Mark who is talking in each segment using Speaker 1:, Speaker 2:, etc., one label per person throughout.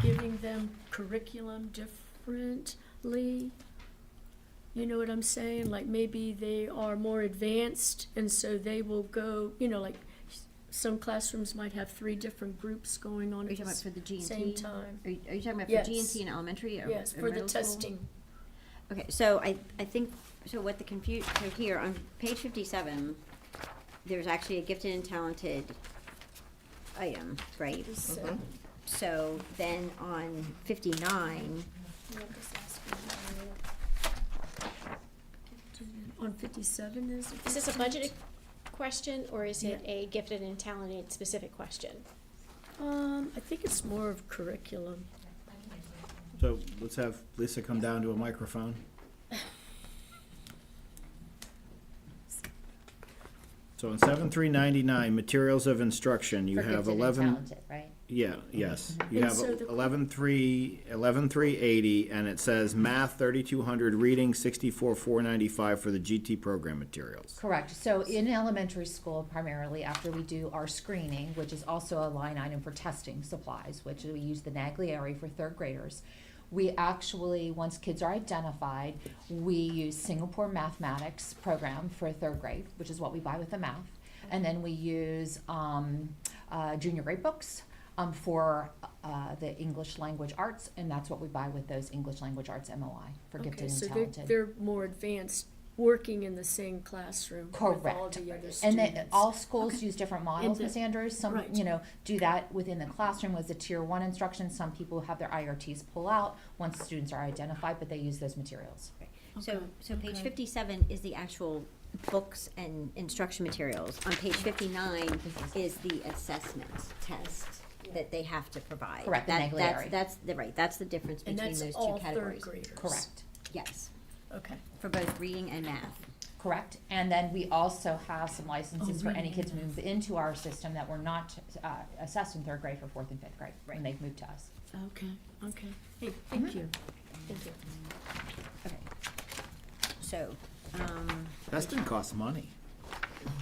Speaker 1: treating them curriculum differently. You know what I'm saying? Like maybe they are more advanced and so they will go, you know, like s- some classrooms might have three different groups going on
Speaker 2: Are you
Speaker 1: at
Speaker 2: talking
Speaker 1: the
Speaker 2: about
Speaker 1: s-
Speaker 2: for the G and T?
Speaker 1: same time.
Speaker 2: Are you, are you talking about for G and
Speaker 1: Yes.
Speaker 2: T in elementary or,
Speaker 1: Yes, for
Speaker 2: or
Speaker 1: the
Speaker 2: middle school?
Speaker 1: testing.
Speaker 2: Okay, so I, I think, so what the confu, so here on page fifty-seven, there's actually a gifted and talented item, right?
Speaker 1: So,
Speaker 2: So then on fifty-nine,
Speaker 1: I'm just asking about- On fifty-seven is it?
Speaker 3: Is this a
Speaker 1: 15?
Speaker 3: budgeted question or is it a gifted and talented specific question?
Speaker 1: Um, I think it's more of curriculum.
Speaker 4: So let's have Lisa come down to a microphone. So in seven three ninety-nine, materials of instruction, you
Speaker 5: For
Speaker 4: have
Speaker 5: gifted and
Speaker 4: eleven,
Speaker 5: talented, Right?
Speaker 4: yeah, yes. You
Speaker 1: And
Speaker 4: have
Speaker 1: so the-
Speaker 4: eleven three, eleven three eighty, and it says math thirty-two hundred, reading sixty-four four ninety-five for the GT program materials.
Speaker 5: Correct. So in elementary school primarily, after we do our screening, which is also a line item for testing supplies, which we use the Naglieri for third graders, we actually, once kids are identified, we use Singapore Mathematics program for third grade, which is what we buy with the math. And then we use um, uh, junior grade books um, for uh, the English language arts, and that's what we buy with those English language arts MOI for gifted
Speaker 1: Okay,
Speaker 5: and
Speaker 1: so they're,
Speaker 5: talented.
Speaker 1: they're more advanced, working in the same classroom with all
Speaker 5: Correct.
Speaker 1: the other students.
Speaker 5: And then all schools
Speaker 1: Okay.
Speaker 5: use different models,
Speaker 1: the-
Speaker 5: Ms. Andrews, some,
Speaker 1: right.
Speaker 5: you know, do that within the classroom as a tier one instruction, some people have their IRTs pull out once students are identified, but they use those materials.
Speaker 2: so,
Speaker 1: Okay,
Speaker 2: so page
Speaker 1: okay.
Speaker 2: fifty-seven is the actual books and instruction materials. On page fifty-nine is the assessment test that they have to provide.
Speaker 5: Correct, the
Speaker 2: That-
Speaker 5: Naglieri.
Speaker 2: That's, that's, the- right, that's the difference
Speaker 1: And
Speaker 2: between
Speaker 1: that's
Speaker 2: those two
Speaker 1: all third
Speaker 2: categories.
Speaker 1: graders.
Speaker 5: Correct,
Speaker 2: Yes,
Speaker 1: Okay.
Speaker 2: for both reading and math.
Speaker 5: correct. And then we also have some licenses
Speaker 1: Oh,
Speaker 5: for any
Speaker 1: reading
Speaker 5: kids
Speaker 1: and
Speaker 5: moved into our system that were not uh, assessed in third grade for fourth and fifth grade, when they've moved to us.
Speaker 1: Okay, okay. Hey, thank you. Thank you.
Speaker 2: Okay. So, um,
Speaker 4: That's gonna cost money.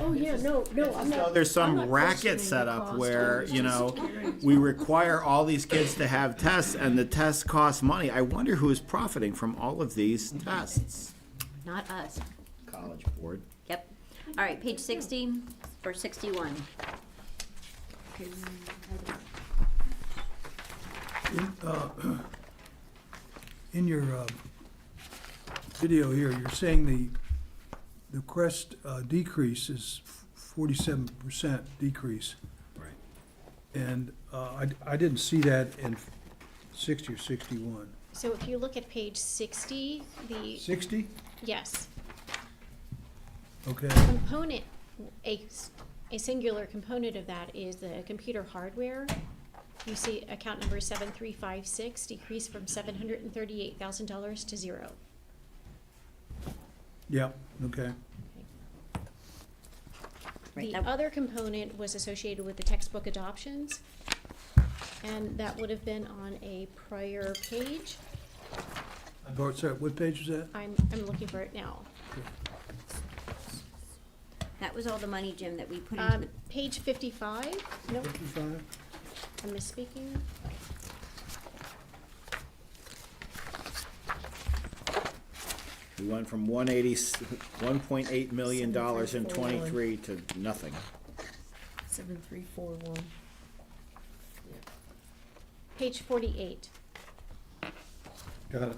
Speaker 1: Oh, yeah, no, no, I'm not.
Speaker 4: There's
Speaker 1: I'm
Speaker 4: some
Speaker 1: not
Speaker 4: racket
Speaker 1: questioning the
Speaker 4: set up
Speaker 1: cost, I
Speaker 4: where,
Speaker 1: was
Speaker 4: you
Speaker 1: just
Speaker 4: know,
Speaker 1: curious.
Speaker 4: we require all these kids to have tests and the tests cost money. I wonder who is profiting from all of these tests.
Speaker 2: not us.
Speaker 4: College board.
Speaker 2: Yep. All right, page sixty or sixty-one.
Speaker 6: Uh, In your uh, video here, you're saying the, the crest uh, decrease is forty-seven percent decrease.
Speaker 4: Right.
Speaker 6: And uh, I, I didn't see that in sixty or sixty-one.
Speaker 3: So if you look at page sixty, the,
Speaker 6: Sixty?
Speaker 3: yes,
Speaker 6: Okay,
Speaker 3: component, a, s- a singular component of that is the computer hardware. You see account number seven three five six decreased from seven hundred and thirty-eight thousand dollars to zero.
Speaker 6: yeah, okay.
Speaker 2: Right,
Speaker 3: The
Speaker 2: that-
Speaker 3: other component was associated with the textbook adoptions, and that would have been on a prior page.
Speaker 6: Bart, sorry, what page is that?
Speaker 3: I'm, I'm looking for it now.
Speaker 2: That was all the money, Jim, that we put into
Speaker 3: Um,
Speaker 2: the
Speaker 3: page fifty-five, nope,
Speaker 6: Fifty-five?
Speaker 3: I'm misspeaking.
Speaker 4: We went from one eighty, one point eight million dollars in twenty-three to nothing.
Speaker 1: Seven, three, four, one.
Speaker 3: Page forty-eight.
Speaker 6: Got it.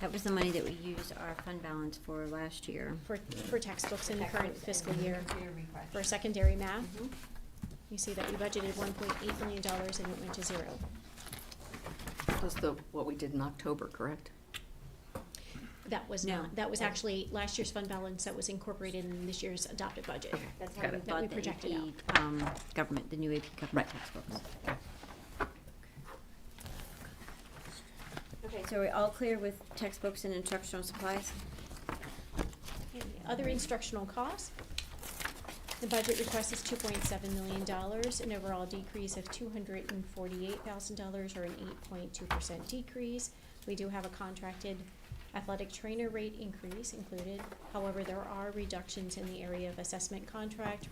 Speaker 2: That was the money that we used our fund balance for last year.
Speaker 3: for, for textbooks in the current fiscal year for secondary math.
Speaker 2: Mm-hmm.
Speaker 3: You see that we budgeted one point eight million dollars and it went to zero.
Speaker 7: Plus the, what we did in October, correct?
Speaker 3: That was
Speaker 2: No.
Speaker 3: not, that was actually last year's fund balance that was incorporated in this year's adopted budget.
Speaker 2: That's
Speaker 7: Got
Speaker 2: how we
Speaker 7: it.
Speaker 3: That we
Speaker 2: bought the
Speaker 3: projected out.
Speaker 2: AP, um, government, the new AP government textbooks. Okay, so are we all clear with textbooks and instructional supplies?
Speaker 3: Okay, Other instructional costs. The budget request is two point seven million dollars, an overall decrease of two hundred and forty-eight thousand dollars or an eight point two percent decrease. We do have a contracted athletic trainer rate increase included. However, there are reductions in the area of assessment contract,